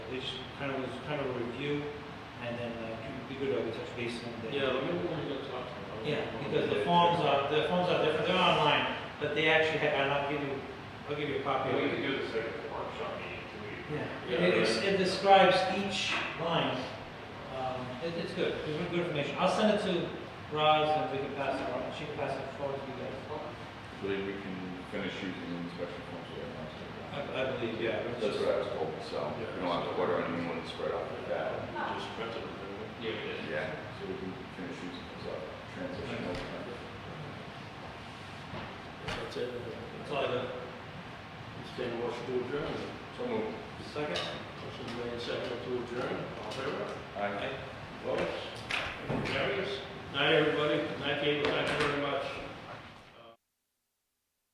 least kind of, kind of a review, and then uh, it'd be good to touch base and. Yeah, let me, let me go talk to him. Yeah, because the forms are, the forms are different, they're online, but they actually have, and I'll give you, I'll give Oh, you a copy Yeah, of we it. could do this like a workshop meeting, too. We- Yeah, it, it's- it describes each line, um, it, it's good, it's really good information, I'll send it to Roz and we can pass it on, she can pass it forward to you guys. So that we can finish using the inspection forms we have now. I, I believe, yeah. it's That's just- what I was told, so we don't have to order anyone to spread out like that. We just printed it, didn't we? Yeah, we did. Yeah, so we can finish using those up, transition over time. That's it. That's all I got. Stand a motion to adjourn. So move. Second? Motion made second to adjourn. All in favor? Aye. Votes? Carries? Night, everybody. Night, Cable. Thank you very much.